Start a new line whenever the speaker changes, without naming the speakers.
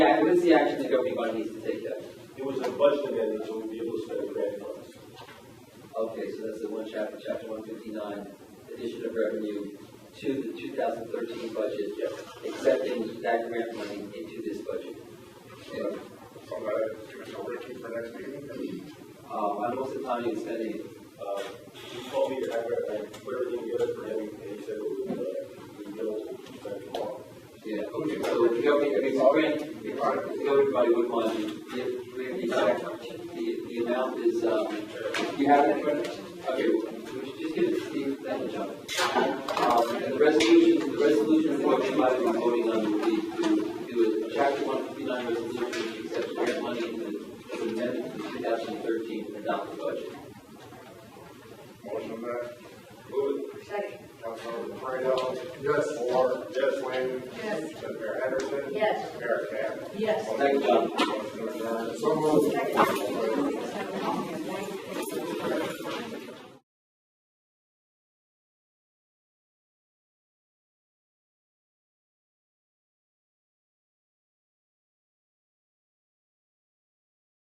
needs to take that?
It was a budget amendment, so we'd be able to spend the grant funds.
Okay, so that's the one chapter, chapter one fifty-nine, addition of revenue to the two thousand thirteen budget, accepting that grant money into this budget. Okay,
From uh, Commissioner Ritchie for next meeting.
Uh, on what's the timing of spending?
Uh, He called me, I, I put everything together for him, and he said, we'll, uh, we'll be able to spend it tomorrow.
Yeah, okay, so if you have, if it's a grant, if if everybody would want to, if, if the, the, the amount is, um, if you have it, okay, we should just give it to Steve, thank you, John. Um, and the resolution, the resolution for which you might be voting on would be to do a chapter one fifty-nine resolution, to accept grant money in the, in the amendment to two thousand thirteen adopted budget.
Motion that
Move it.
Second.
Councilmember Fredo. Yes. Moore. Yes. Quinn.
Yes.
Mayor Henderson.
Yes.
Mayor Camp.
Yes.
Thank you, John.
Motion to adjourn. So moved.